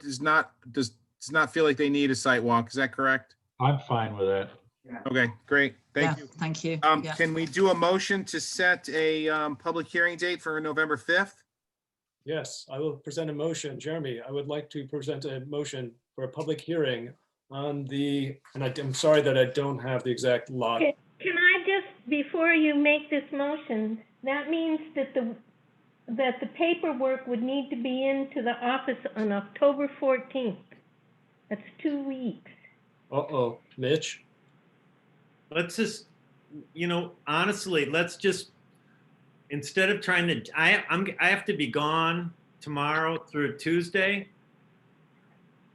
does not, does, does not feel like they need a site walk. Is that correct? I'm fine with that. Okay, great. Thank Yeah, you. Thank you. Um, Yeah. can we do a motion to set a, um, public hearing date for November 5th? Yes, I will present a motion. Jeremy, I would like to present a motion for a public hearing on the, and I- I'm sorry that I don't have the exact lot. Okay. Can I just, before you make this motion, that means that the, that the paperwork would need to be into the office on October 14th. That's two weeks. Uh-oh, Mitch, let's just you know honestly let's just instead of trying to i i'm i have to be gone tomorrow through tuesday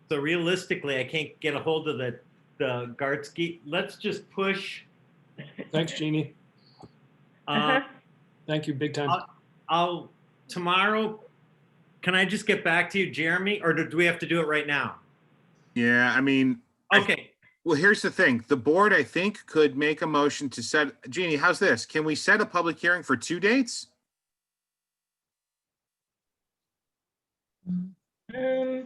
so realistically i can't get a hold of the the gartsky let's just push thanks, Jeannie. uh, Uh-huh. Thank you, big time. i'll tomorrow can i just get back to you jeremy or do, do we have to do it right now Yeah, I mean, I- okay well, here's the thing. The board, I think, could make a motion to set, Jeannie, how's this? Can we set a public hearing for two dates? Um,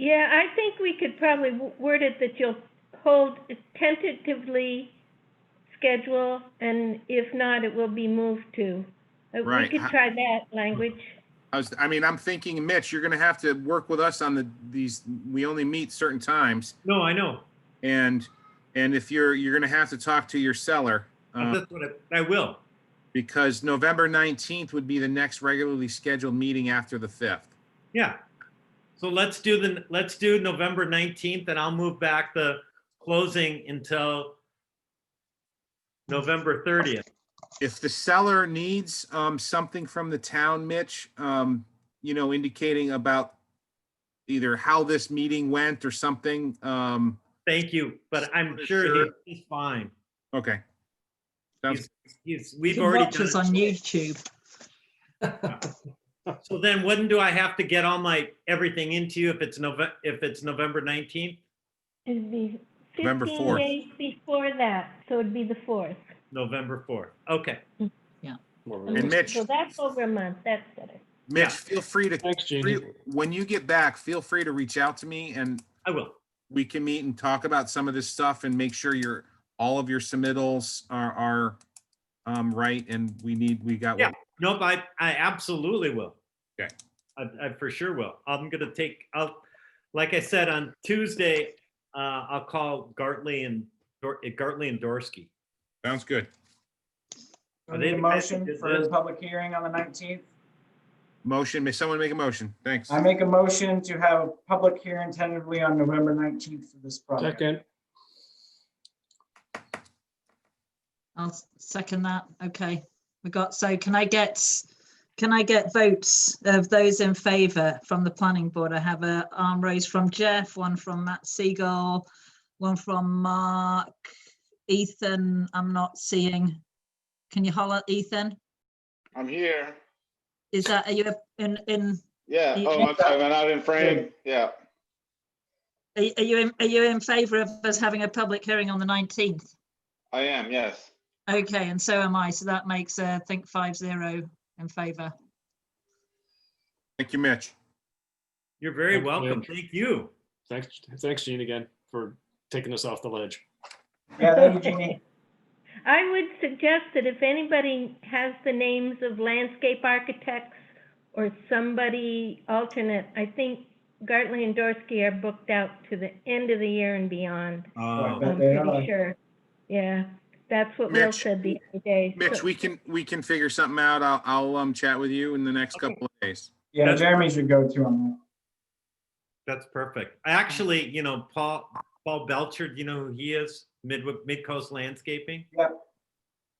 Yeah, I think we could probably w- word it that you'll hold tentatively schedule, and if not, it will be moved to. Uh, Right. We could try that language. I was, I mean, I'm thinking, Mitch, you're gonna have to work with us on the, these, we only meet certain times. no i know And, and if you're, you're gonna have to talk to your seller. uh, that's what I, I will because November 19th would be the next regularly scheduled meeting after the 5th. Yeah. So let's do the, let's do November 19th and I'll move back the closing until November 30th. If the seller needs um, something from the town, Mitch, um, you know, indicating about either how this meeting went or something, um, Thank you, but I'm Sure. sure he- he's fine. okay. Sounds- He's, You we've can already watch us on done it. YouTube. So then when do I have to get all my, everything into you if it's November, if it's November 19th? It'd be November 15 4th. days before that, so it'd be the 4th. November 4th. Okay. Uh, And Mitch, So that's over a month, that's better. Mitch, feel free to, Thanks, Jeannie. when you get back, feel free to reach out to me and I will. we can meet and talk about some of this stuff and make sure your, all of your submittals are, are um, right and we need, we got. what Yeah. Nope, I, I absolutely will. Okay. I, I for sure will. I'm gonna take, I'll, like I said, on Tuesday, uh, I'll call Gartley and, Dor- Gartley and Dorsky. Sounds good. Are they We need a the motion messages for the in? public hearing on the nineteenth. Motion, may someone make a motion? Thanks. I make a motion to have a public hearing tentatively on November nineteenth for this project. Second, I'll s- second that. Okay, we got, so can I get, can I get votes of those in favour from the planning board? I have a arm raised from Jeff, one from Matt Siegel, one from Mark, Ethan, I'm not seeing. Can you holler, Ethan? I'm here. Is that, are you in, in, Yeah. You- Oh, I'm sorry. I'm not in frame. Yeah. are are you, in- are you in favour of us having a public hearing on the nineteenth? I am. Yes. Okay, and so am I. So that makes, uh, I think five zero in favour. Thank you, Mitch. You're very Thanks, welcome. Mitch. Thank you. thanks, thanks, Jeannie, again, for taking us off the ledge. Yeah, thank you, Jeannie. I would suggest that if anybody has the names of landscape architects or somebody alternate, I think Gartley and Dorsky are booked out to the end of the year and beyond. Oh, I'm But they are. pretty sure. Yeah, that's what Will Mitch- said the other day. Mitch, So- we can, we can figure something out. I'll, I'll, um, chat with you in the next couple of days. Yeah, Jeremy's your go-to on That's perfect. Actually, you know, Paul, Paul Belcher, you know who he is? Mid, Midcoast Landscaping? yeah.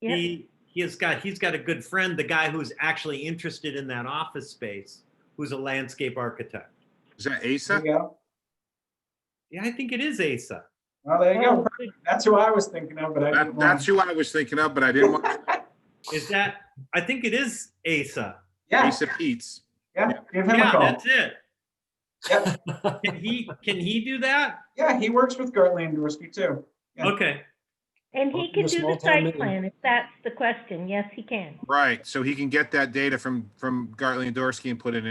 He, he has got, he's got a good friend, the guy who's actually interested in that office space, who's a landscape architect. Is that that. There ASA? you go. Yeah, I think it is Asa. Well, there you Oh, go. That's who I was thinking of, but I That, didn't that's want. who I was thinking of, but I didn't want Is that, I think it is Asa. Yeah, Asa Pete's. yeah, give him a Yeah, call. that's it. Yep. Can he, can he do that? Yeah, he works with Gertland and Dorsky too. Yeah. Okay, And he Welcome can to do small the town site meeting. plan, if that's the question. Yes, he can. Right. So he can get that data from, from Gartley and Dorsey and put it in